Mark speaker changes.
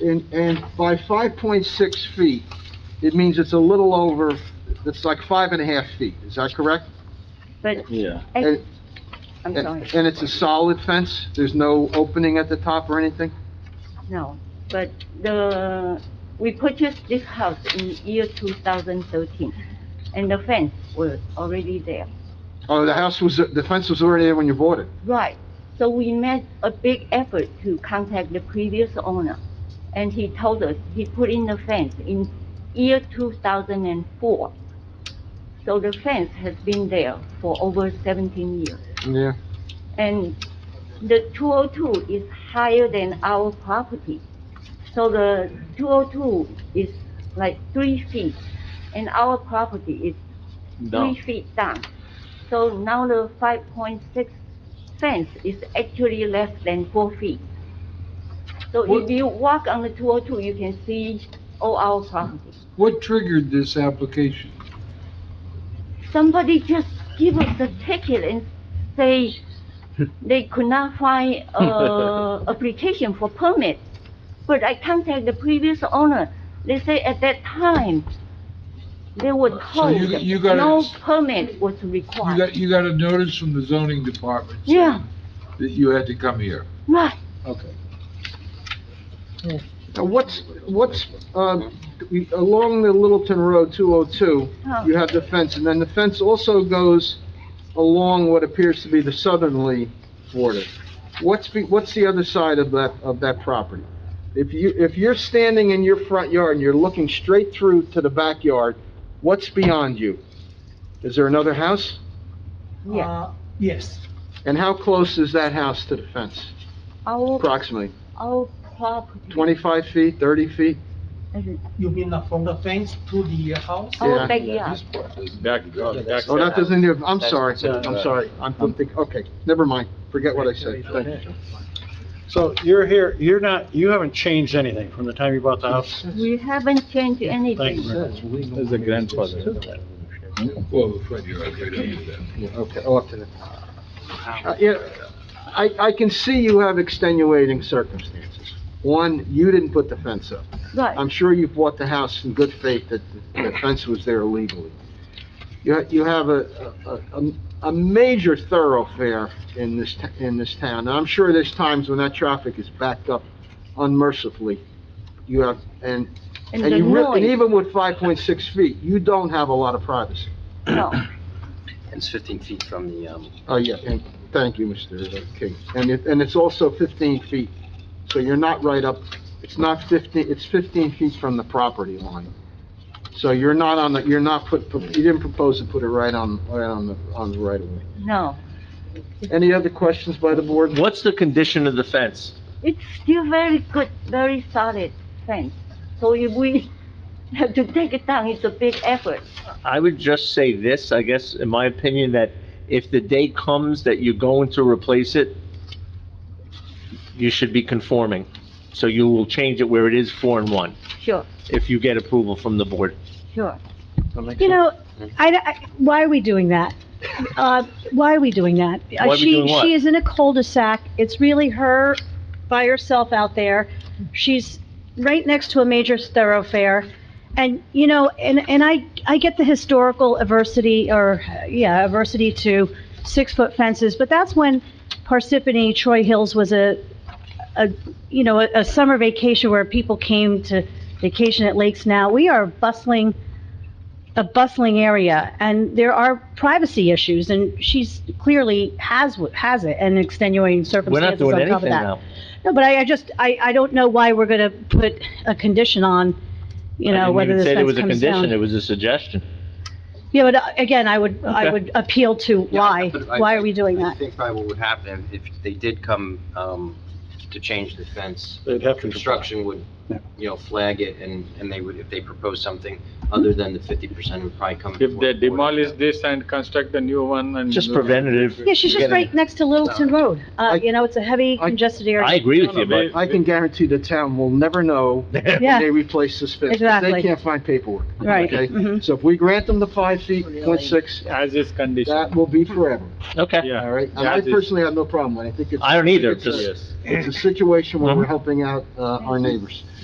Speaker 1: And, and by five point six feet, it means it's a little over, it's like five and a half feet, is that correct?
Speaker 2: But,
Speaker 3: Yeah.
Speaker 2: eh,
Speaker 1: And-
Speaker 2: I'm
Speaker 1: And
Speaker 2: sorry,
Speaker 1: and it's a solid fence? There's no opening at the top or anything?
Speaker 2: no, but the, we purchased this house in year 2013, and the fence was already there.
Speaker 1: Oh, the house was, the fence was already there when you bought it?
Speaker 2: Right, so we made a big effort to contact the previous owner, and he told us he put in the fence in year 2004. So the fence has been there for over 17 years.
Speaker 1: Yeah.
Speaker 2: And the 202 is higher than our property. So the 202 is like three feet, and our property is
Speaker 3: No.
Speaker 2: three feet down. So now the 5.6 fence is actually less than four feet. So if
Speaker 4: What-
Speaker 2: you walk on the 202, you can see all our property.
Speaker 4: What triggered this application?
Speaker 2: somebody just give us a ticket and say they could not find a application for permit. But I contact the previous owner, they say at that time, they were
Speaker 4: So
Speaker 2: told
Speaker 4: you- you got a-
Speaker 2: no permit was
Speaker 4: You
Speaker 2: required.
Speaker 4: got, you got a notice from the zoning department? saying
Speaker 2: Yeah,
Speaker 4: That you had to come here?
Speaker 2: right,
Speaker 4: Okay.
Speaker 1: Now, what's, what's, um, we- along the Littleton Road 202,
Speaker 2: Oh.
Speaker 1: you have the fence, and then the fence also goes along what appears to be the southerly border. What's, be- what's the other side of that, of that property? If you, if you're standing in your front yard and you're looking straight through to the backyard, what's beyond you? Is there another house?
Speaker 2: yeah.
Speaker 5: Uh, Yes,
Speaker 1: And how close is that house to the fence,
Speaker 2: Our,
Speaker 1: approximately?
Speaker 2: our property.
Speaker 1: 25 feet, 30 feet?
Speaker 5: you mean uh, from the fence to the house?
Speaker 1: Yeah.
Speaker 2: Our backyard,
Speaker 3: Back, uh, back.
Speaker 1: Oh, that doesn't, even- I'm
Speaker 6: That's-
Speaker 1: sorry,
Speaker 6: that's-
Speaker 1: I'm sorry, I'm I'm thinking, okay, never mind, forget what I said, thank you.
Speaker 7: So you're here, you're not, you haven't changed anything from the time you bought the house?
Speaker 2: we haven't changed
Speaker 7: Thank you.
Speaker 2: anything.
Speaker 7: very much.
Speaker 3: There's a grandfather.
Speaker 4: Well, the front yard, right under that.
Speaker 1: Yeah, Okay, off to the. Uh, Yeah, I, I can see you have extenuating circumstances. One, you didn't put the fence up.
Speaker 2: Right,
Speaker 1: I'm sure you bought the house in good faith that the the fence was there illegally. You, ha- you have a, a- a, a major thoroughfare in this, t- in this town, and I'm sure there's times when that traffic is backed up unmercifully. You have, and,
Speaker 2: and
Speaker 1: and
Speaker 2: the
Speaker 1: you, re- and
Speaker 2: noise,
Speaker 1: even with five point six feet, you don't have a lot of privacy.
Speaker 2: no,
Speaker 6: It's 15 feet from the, um,
Speaker 1: Oh, yeah, and thank you, Mr. King. And it, and it's also 15 feet, so you're not right up, it's not 15, it's 15 feet from the property line. So you're not on the, you're not put, you didn't propose to put it right on, right on the, on the right of way.
Speaker 2: no.
Speaker 1: Any other questions by the board?
Speaker 3: What's the condition of the fence?
Speaker 2: It's still very good, very solid fence. So if we have to take it down, it's a big effort.
Speaker 3: I would just say this, I guess, in my opinion, that if the day comes that you're going to replace it, you should be conforming. So you will change it where it is four and one,
Speaker 2: Sure,
Speaker 3: if you get approval from the board.
Speaker 2: sure.
Speaker 8: You know, I, I- why are we doing that? Uh, why are we doing that?
Speaker 3: Why
Speaker 8: Uh,
Speaker 3: are we
Speaker 8: she-
Speaker 3: doing what?
Speaker 8: She is in a cul-de-sac. It's really her by herself out there. She's right next to a major thoroughfare. And, you know, and, and I, I get the historical adversity or, yeah, adversity to six-foot fences, but that's when Parsippany Troy Hills was a, a, you know, a, a summer vacation where people came to vacation at lakes now. We are bustling a bustling area, and there are privacy issues, and she's clearly has, wh- has it, and extenuating
Speaker 3: We're not
Speaker 8: circumstances
Speaker 3: doing
Speaker 8: on top of
Speaker 3: anything
Speaker 8: that.
Speaker 3: now.
Speaker 8: No, but I, I just, I, I don't know why we're gonna put a condition on, you know, whether this
Speaker 3: It was
Speaker 8: fence
Speaker 3: a
Speaker 8: comes
Speaker 3: condition, it
Speaker 8: down.
Speaker 3: was a suggestion.
Speaker 8: Yeah, but uh, again, I would, I
Speaker 3: Okay.
Speaker 8: would appeal to why,
Speaker 6: but I-
Speaker 8: why are we doing
Speaker 6: I
Speaker 8: that?
Speaker 6: think probably what would happen if they did come, um, to change the fence,
Speaker 7: They'd have to construct.
Speaker 6: construction would,
Speaker 7: Yeah.
Speaker 6: you know, flag it and, and they would, if they proposed something other than the 50%, it would probably come.
Speaker 9: If
Speaker 6: before
Speaker 9: they
Speaker 6: the board.
Speaker 9: demolish this and construct a new one and.
Speaker 3: Just
Speaker 4: Mm-hmm.
Speaker 3: preventative.
Speaker 8: Yeah, she's just
Speaker 3: Getting-
Speaker 8: right next to Littleton Road,
Speaker 1: I-
Speaker 8: uh, you know, it's a heavy
Speaker 1: I-
Speaker 8: congested
Speaker 3: I
Speaker 8: area.
Speaker 3: agree with you, but
Speaker 1: I can guarantee the town will never know when
Speaker 8: Yeah,
Speaker 1: they replace this fence. 'cause They
Speaker 8: Exactly.
Speaker 1: can't find paperwork.
Speaker 8: right,
Speaker 1: Okay?
Speaker 8: mhm.
Speaker 1: So if we grant them the five feet, point six,
Speaker 9: As is
Speaker 1: that
Speaker 9: condition.
Speaker 1: will be forever,
Speaker 3: Okay,
Speaker 9: Yeah.
Speaker 1: all right? And I
Speaker 9: That is-
Speaker 1: personally have no problem with it, I think it's.
Speaker 3: I don't either,
Speaker 1: it's a-
Speaker 3: just-
Speaker 9: Yes.
Speaker 1: It's a situation where we're
Speaker 3: Mhm.
Speaker 1: helping out, uh, our neighbors.